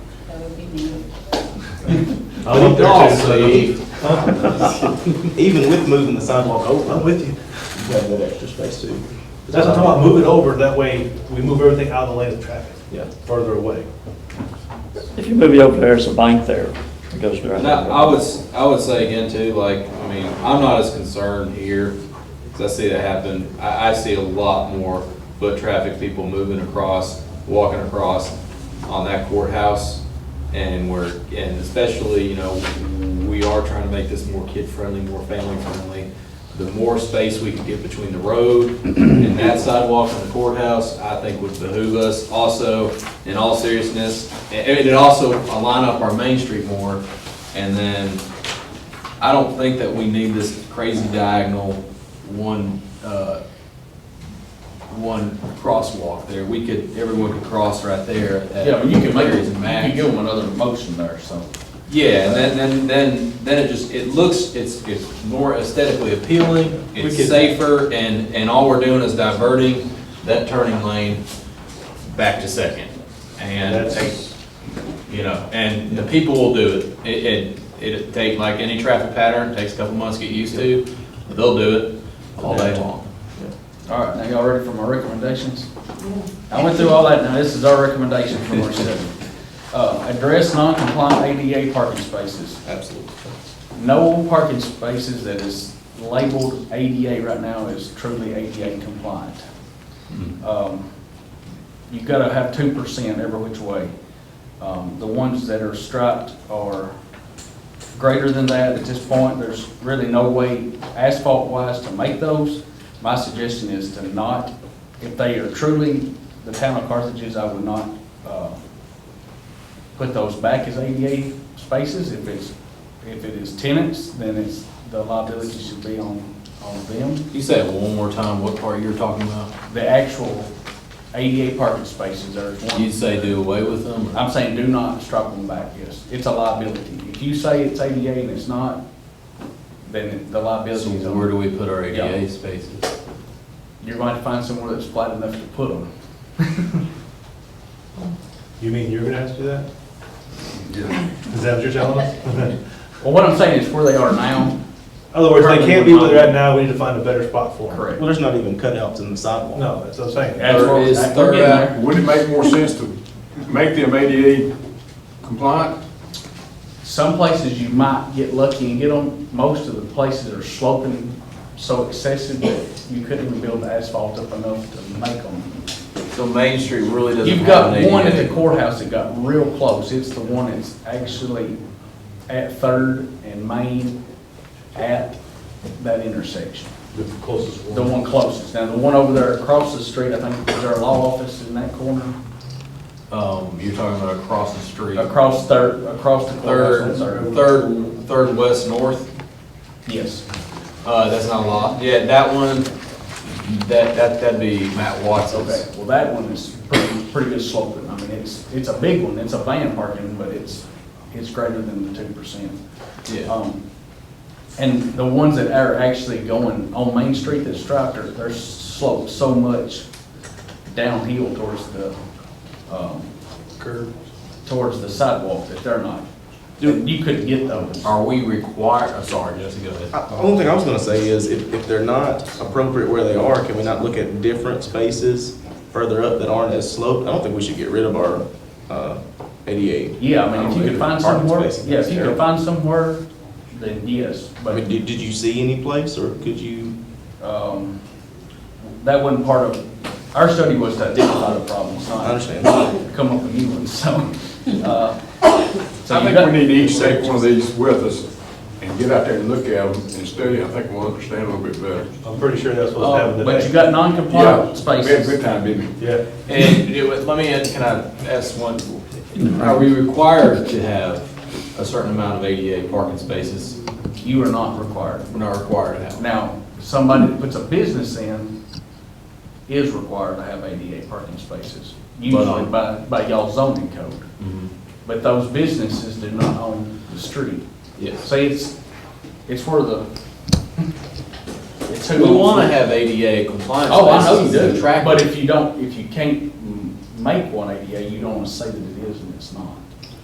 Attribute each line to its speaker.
Speaker 1: That would be me.
Speaker 2: I looked there too, so.
Speaker 3: Even with moving the sidewalk over.
Speaker 2: I'm with you.
Speaker 3: You have that extra space too.
Speaker 2: That's what I'm talking about, move it over, that way we move everything out of the lane of traffic,
Speaker 3: Yeah.
Speaker 2: further away.
Speaker 4: If you move it over there, it's a bank there. It goes
Speaker 5: And
Speaker 4: directly.
Speaker 5: I, I was, I would say again too, like, I mean, I'm not as concerned here, because I see that happen. I, I see a lot more foot traffic, people moving across, walking across on that courthouse. And we're, and especially, you know, we are trying to make this more kid-friendly, more family-friendly. The more space we can get between the road and that sidewalk and the courthouse, I think would behoove us also, in all seriousness. And and it'd also align up our Main Street more, and then, I don't think that we need this crazy diagonal one, uh, one crosswalk there. We could, everyone could cross right there. at
Speaker 6: Yeah, but you can make,
Speaker 5: Mary's
Speaker 6: you
Speaker 5: and
Speaker 6: can
Speaker 5: Max.
Speaker 6: give them another motion there, so.
Speaker 5: Yeah, and then, then, then, then it just, it looks, it's, it's more aesthetically appealing,
Speaker 2: We
Speaker 5: it's
Speaker 2: could-
Speaker 5: safer, and, and all we're doing is diverting that turning lane back to second. And,
Speaker 2: That's-
Speaker 5: you know, and the people will do it. It, it, it'd take, like any traffic pattern, takes a couple months to get used to, but they'll do it all day long.
Speaker 6: All right, now y'all ready for my recommendations? I went through all that, now this is our recommendation from our study. Uh, address non-compliant ADA parking spaces.
Speaker 5: Absolutely.
Speaker 6: No parking spaces that is labeled ADA right now is truly ADA compliant. Um, You've got to have two percent every which way. Um, The ones that are striped are greater than that at this point. There's really no way asphalt-wise to make those. My suggestion is to not, if they are truly the town of Carthage's, I would not uh, put those back as ADA spaces. If it's, if it is tenants, then it's, the liability should be on, on them.
Speaker 5: Can you say it one more time, what part you're talking about?
Speaker 6: The actual ADA parking spaces are.
Speaker 5: You'd say do away with them? or-
Speaker 6: I'm saying do not strike them back, yes. It's a liability. If you say it's ADA and it's not, then the
Speaker 5: So
Speaker 6: liability is
Speaker 5: where
Speaker 6: on.
Speaker 5: do we put our ADA
Speaker 6: Yeah.
Speaker 5: spaces?
Speaker 6: You're going to find somewhere that's flat enough to put them.
Speaker 2: You mean you're gonna have to do that? Is that what you're telling us? In
Speaker 6: Well, what I'm saying is where they are now,
Speaker 2: other words, they can't be where they're at now, we need to find a better spot for them.
Speaker 6: correct.
Speaker 3: Well, there's not even cutouts in the sidewalk.
Speaker 2: No, that's what I'm saying.
Speaker 6: That's where-
Speaker 5: Third is
Speaker 6: we're
Speaker 5: third
Speaker 6: getting there.
Speaker 7: Wouldn't it make more sense to make them ADA compliant?
Speaker 6: Some places you might get lucky and get them, most of the places are sloping so excessive that you couldn't even build asphalt up enough to make them.
Speaker 5: So Main Street really doesn't
Speaker 6: You've
Speaker 5: have an
Speaker 6: got one at
Speaker 5: ADA.
Speaker 6: the courthouse that got real close, it's the one that's actually at Third and Main at that intersection.
Speaker 2: The closest
Speaker 6: The one closest, now the one over there across the street, I think, is our law office in that corner,
Speaker 5: Um, you're talking about across the street.
Speaker 6: across Third, across the
Speaker 5: Third,
Speaker 6: courthouse on
Speaker 5: third,
Speaker 6: Third.
Speaker 5: third west north,
Speaker 6: Yes,
Speaker 5: uh, that's not a lot. Yeah, that one, that, that, that'd be Matt
Speaker 6: okay,
Speaker 5: Watson's.
Speaker 6: well, that one is pretty, pretty good sloping, I mean, it's, it's a big one, it's a van parking, but it's, it's greater than the two percent.
Speaker 5: Yeah,
Speaker 6: Um, And the ones that are actually going on Main Street that's striped are, they're sloped so much downhill towards the, um,
Speaker 2: Curve.
Speaker 6: towards the sidewalk that they're not. You couldn't get those.
Speaker 5: Are we required, I'm sorry, Jesse, go ahead.
Speaker 3: I- The only thing I was gonna say is, if, if they're not appropriate where they are, can we not look at different spaces further up that aren't as sloped? I don't think we should get rid of our, uh, ADA.
Speaker 6: Yeah, I mean, if you could find
Speaker 3: Parking
Speaker 6: somewhere,
Speaker 3: spaces,
Speaker 6: yeah, if you could
Speaker 3: terrible.
Speaker 6: find somewhere, then yes,
Speaker 3: I mean,
Speaker 6: but,
Speaker 3: did, did you see any place, or could you?
Speaker 6: um, that wasn't part of, our study was to identify the problems,
Speaker 3: I
Speaker 6: not
Speaker 3: understand.
Speaker 6: come up with new ones, so. uh, so
Speaker 7: I
Speaker 6: you
Speaker 7: think
Speaker 6: got-
Speaker 7: we need to each take one of these with us and get out there and look at them and study. I think we'll understand a little bit better.
Speaker 2: I'm pretty sure that's what's happening
Speaker 6: Oh,
Speaker 2: today.
Speaker 6: But you got non-compliant
Speaker 7: Yeah, we had a good
Speaker 6: spaces.
Speaker 7: time, didn't we?
Speaker 2: Yeah.
Speaker 5: And it would- let me, add- can I ask one, are we required to have a certain amount of ADA parking spaces?
Speaker 6: You are not required.
Speaker 5: We're not required to have.
Speaker 6: Now, somebody that puts a business in is required to have ADA parking spaces, usually
Speaker 7: um,
Speaker 6: by, by y'all zoning code.
Speaker 5: Mhm.
Speaker 6: But those businesses do not own the street.
Speaker 5: Yes.
Speaker 6: So it's, it's where the, it's
Speaker 5: We
Speaker 6: who.
Speaker 5: want to have ADA compliant
Speaker 6: Oh, I know you
Speaker 5: spaces to
Speaker 6: do,
Speaker 5: attract-
Speaker 6: but if you don't, if you can't mm, make one ADA, you don't want to say that it is and it's not.